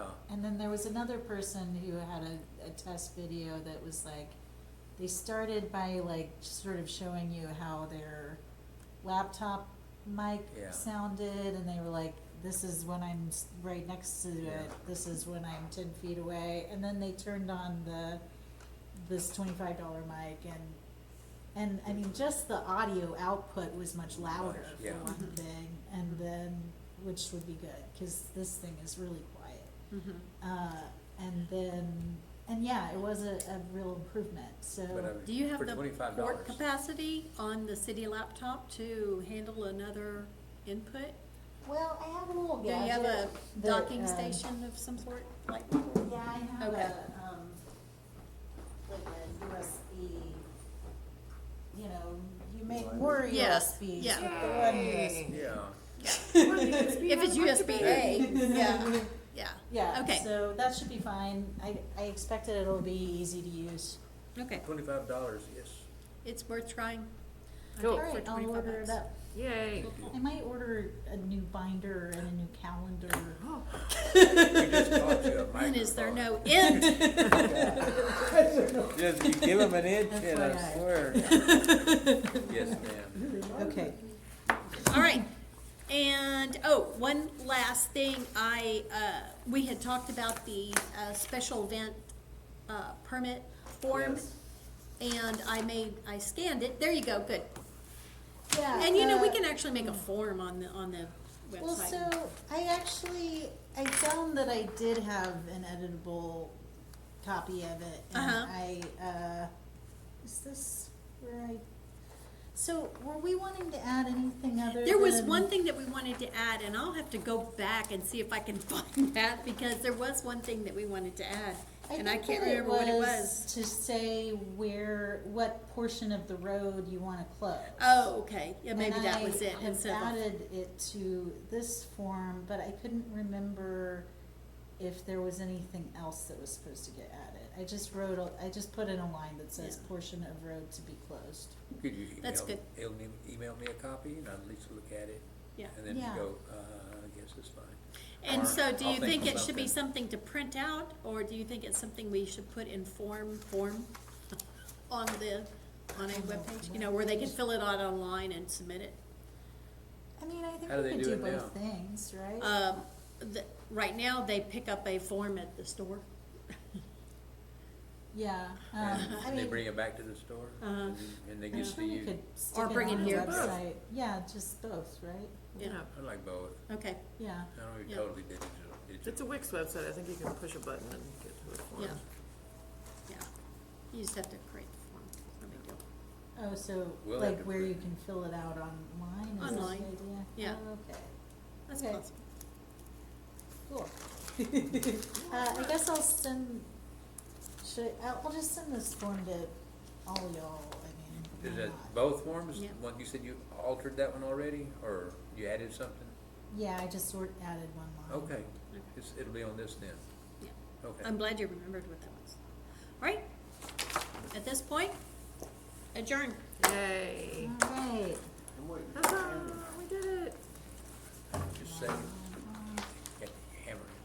And then there was another person who had a, a test video that was like, they started by like sort of showing you how their laptop mic Yeah. sounded, and they were like, this is when I'm s- right next to Yeah. it, this is when I'm 10 feet away. And then they turned on the this $25 mic and and I mean, just the audio output was much louder Much, for yeah. one thing, and then, which would be good, cause this thing is really quiet. Mm-hmm. Uh, and then, and yeah, it was a, a real improvement, so. But I mean, Do you have for the $25 port capacity on the city laptop to handle another input? Well, I have a little Do you have a that, docking um, station of some sort, like? Yeah, I have Okay. a, um, like a USB, you know, you make more Yes, USBs yeah. with the one USB. Yeah, If it's USB A, yeah, yeah. Yeah, Okay. so that should be fine. I, I expect that it'll be easy to use. Okay, twenty-five dollars, yes. it's worth trying. I Cool. think All for right, I'll 25 order it bucks. up. Yay. I might order a new binder and a new calendar. We just bought you a When is there microphone. no end? Just you give them an inch and FYI. a square. Yes, ma'am. Okay. All right. And, oh, one last thing, I, uh, we had talked about the, uh, special event, uh, permit form. Yes. And I made, I scanned it, there you go, good. Yeah. And you know, we uh, can actually make a form on the, on the website. Well, so I actually, I found that I did have an editable copy of it, and Uh-huh. I, uh, is this where I? So were we wanting to add anything other? There was than- one thing that we wanted to add, and I'll have to go back and see if I can find that, because there was one thing that we wanted to add, and I think can't that remember what it was. To say where, what portion of the road you wanna close. Oh, okay, yeah, And maybe that I was it, have and so, the- added it to this form, but I couldn't remember if there was anything else that was supposed to get added. I just wrote, a I just put in a line that says Yeah. portion of road to be closed. Could you email? That's Email me, email me a copy and I'll at least look at it yeah. and then you Yeah. go, uh, I guess it's fine. And Or so, do I'll you think of it should be something. something to print out, or do you think it's something we should put in form, form on the, on a webpage, you know, where they can fill it out online and submit it? I mean, I think How do we they could do do it both now? things, right? Um, the, right now, they pick up a form at the store. Yeah, Uh, um, I And mean. they bring it back to the store Uh-huh. and and they I'm get to sure we use could it. stick Or it bring it on the here. Both. website. Yeah, just both, right? Yeah, I like both. okay, Yeah. I don't Yeah. even totally digital, digital. It's a Wix website, I think you can push a button and get to a form. yeah, yeah. You just have to create the form, no big deal. Oh, so We'll have like to where put- you can fill it out online, is that the idea? Online, yeah. Oh, okay. That's Okay. possible. Cool. Uh, I guess I'll send, should, I'll, I'll just send this form to all y'all, I mean. Is why that not? both forms? Yeah. One, you said you altered that one already or you added something? Yeah, I just sort, added one line. Okay, it's, it'll be on this then. Yeah. Okay. I'm glad you remembered what that was. All right, at this point, adjourn. Yay. All right, Huzzah, we did it. Just saying.